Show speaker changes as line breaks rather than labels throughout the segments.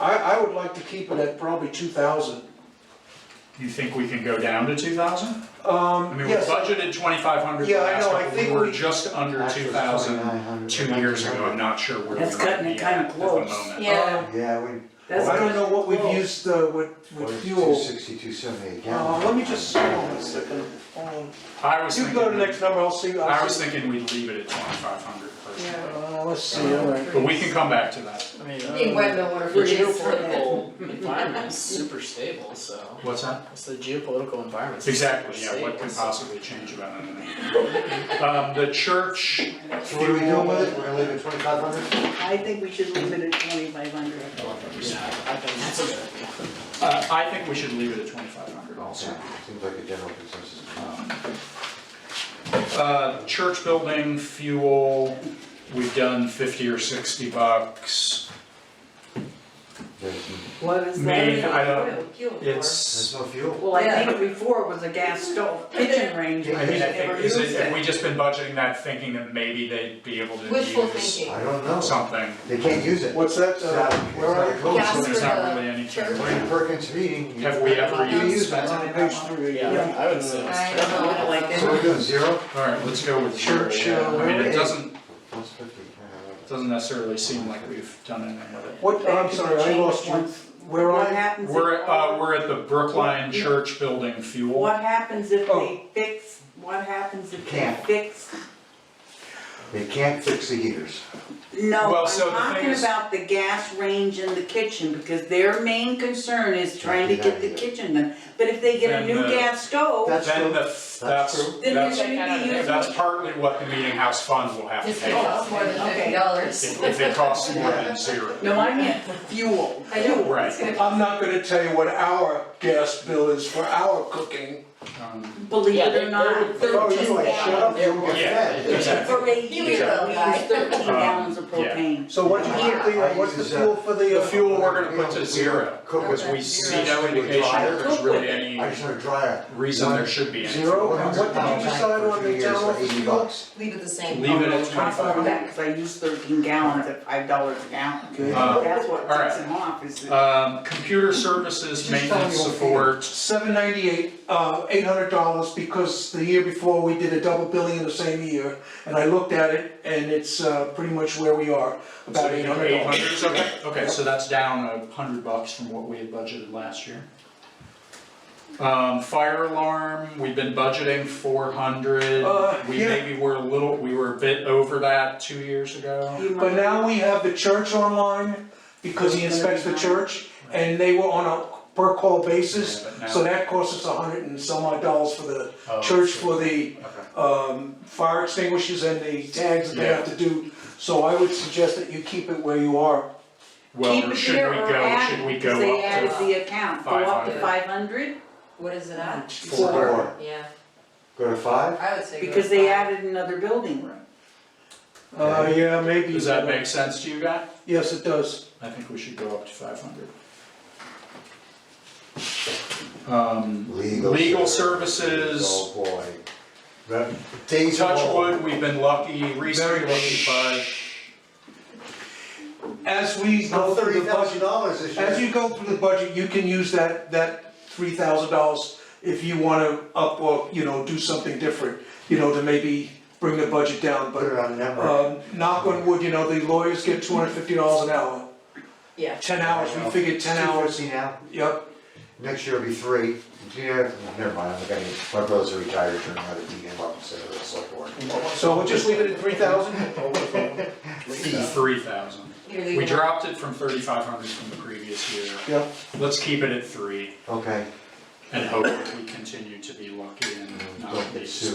I, I would like to keep it at probably two thousand.
You think we can go down to two thousand? I
Um,
mean, we
yes,
budgeted twenty-five hundred
Yeah, I
last
know, I
time, but we
think
were
we-
just under
Actually,
two
it's
thousand
2,900,
two years ago, I'm
1,900.
not sure where we
That's
might
cutting it
be at
kinda
at the
close.
moment.
Yeah,
Yeah, we.
That's
I don't know what we've
Well-
used, uh, with, with
Two
fuel.
sixty, two seventy again.
Uh, let me just, hold on a second, hold on.
I was
You go to the
thinking,
next number, I'll see,
I
I'll
was
see.
thinking we'd leave it at twenty-five hundred personally,
Uh, let's see, all right.
but we can come back to that.
I mean,
I mean,
uh,
Wendell, what
the
if it is?
geopolitical environment is super stable, so,
What's that?
it's the geopolitical environment.
Exactly, yeah, what can possibly change about anything? Um, the church,
So what are we doing with it? We're gonna leave it twenty-five hundred?
I think we should leave it at twenty-five hundred.
Yeah, I think that's a good idea.
uh, I think we should leave it at twenty-five hundred also.
Seems like a general consensus.
Uh, church building, fuel, we've done fifty or sixty bucks.
There's,
What is
Me,
that?
I don't,
Kill it.
there's
it's,
no fuel.
Well, I think before it was a gas stove, kitchen range,
Yeah,
I
but we
mean, I
never
think, is
used
it, have
it.
we just been budgeting that thinking that maybe they'd be able to
Wishful
use
thinking.
I don't know.
something?
They can't use it.
What's that,
It's
uh,
not, it's
where
not
are
a
you?
code.
Yeah.
So there's not
for
really
the
any.
uh, church.
During Perkins meeting. you-
Have we ever
You
used
use
It's
that.
on page three,
Yeah, I would say it's
I
terrible.
don't know.
Like
So we're doing zero?
Alright, let's go with
Church,
church, I
uh,
mean, it
eight.
doesn't,
That's fifty. uh,
doesn't necessarily seem like we've done anything with it.
What, I'm sorry, I lost you. Where are
What
you?
happens if?
We're, uh, we're at the Brookline Church Building Fuel.
What happens if
Oh.
they fix, what happens if they
Can't.
fix?
They can't fix the heaters.
No,
Well,
I'm
so the thing
talking
is-
about the gas range in the kitchen, because their main concern is trying to get the
Yeah.
kitchen done. But if they get a
Then uh,
new
the-
gas stove,
That's
Then
true.
the, that's,
true.
then they're
that's,
gonna be using.
that's partly what the meeting house fund will have to
Just
pay.
kill us more than fifty dollars.
If, if it costs more than zero.
No, I meant fuel.
I know.
Right.
It's gonna-
I'm not gonna tell you what our gas bill is for our cooking.
Um,
Believe
Yeah,
it
they-
or not,
they're-
Oh,
they're
you
just
like,
down.
shut up,
They're-
you get
Yeah,
fed.
exactly. Um,
for a year,
You
we use
go, guy.
thirteen gallons of
yeah.
propane.
So what,
I-
what's the,
I
uh, what's the
use, uh,
fuel for the?
The
uh,
fuel we're gonna
We
put
don't-
to
we
zero,
don't Cook with.
because we see no indication that there's really
I
any
just had a dryer.
reason there should be any.
Zero, and what did you decide on the town
For
office
eighty
fuel?
bucks.
Leave it the same.
Leave it at
I
twenty-five
found
hundred.
that, cause I use thirteen gallons at five dollars a gallon,
Okay.
Uh,
that's what
all right.
puts them off, is that
Um, computer services,
Just tell me
maintenance
what we
support,
Seven ninety-eight, uh, eight hundred dollars, because the year before, we did a double billing in the same year, and I looked at it, and it's, uh, pretty much where we are,
so
about eight
eight
hundred
hundred,
dollars.
okay, okay, so that's down a hundred bucks from what we had budgeted last year. Um, fire alarm, we've been budgeting four hundred,
Uh,
we
yeah.
maybe were a little, we were a bit over that two years ago.
you might-
But now we have the church online, because he inspects the church, and they were on a per-call basis,
Yeah, but now-
so that cost us a hundred and some odd dollars for the
Oh,
church, for
sure.
the,
Okay.
um, fire extinguishers and the tags that they have to do. So I would suggest that you keep it where you are,
keep
Well,
it
should we
there or
go,
add
should we
it, 'cause they
go
added
up to
the account, go up to
500.
five hundred,
What is it at?
four?
Yeah,
Go to five?
I would say. go
because they
five.
added another building.
Uh, yeah, maybe.
Does that make sense to you guys?
Yes, it does.
I think we should go up to five hundred. Um,
Legal.
Legal services.
Oh, boy. That- Days of
touch
old.
wood, we've been lucky,
Very lucky,
research, but
As we go
No,
through
thirty
the
thousand
budget,
dollars this year.
as you go through the budget, you can use that, that three thousand dollars if you wanna up or, you know, do something different, you know, to maybe bring the budget down,
Put it
but,
on a number.
um, knock on wood, you know, the lawyers get two hundred fifty dollars an hour.
Yeah.
Ten hours, we figured ten hours,
Two fifty now,
yep,
next year it'll be three, yeah, never mind, I'm gonna, my brother's a retired attorney, I'm gonna beat him up instead of a select board.
so we'll just leave it at three thousand?
three thousand.
You're leaving
We
it.
dropped it from thirty-five hundred from the previous year.
Yep.
Let's keep it at three
Okay,
and hope that we continue to be lucky and not
Don't
need to
get sued.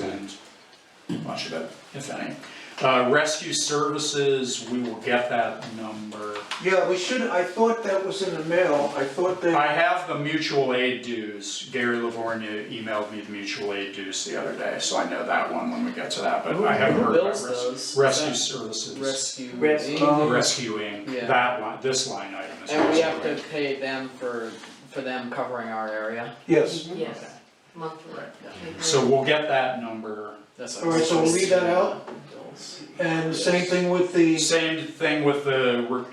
spend much of it, if any. Uh, rescue services, we will get that number.
Yeah, we should, I thought that was in the mail, I thought that.
I have the mutual aid dues. Gary Livornia emailed me the mutual aid dues the other day, so I know that one when we get to that, but I haven't
Who
heard about
bills
res-
those?
rescue
Is
services.
that Rescue.
Rescue.
Inc.
rescuing
Yeah.
that line, this line item is.
And we have
rescuing.
to pay them for, for them covering our area,
Yes.
Yes, monthly.
Right.
Mhm.
So we'll get that number.
that's what.
Alright, so we'll leave that out?
Bills. Mm-hmm.
And the same thing with the.
Same thing with the, re-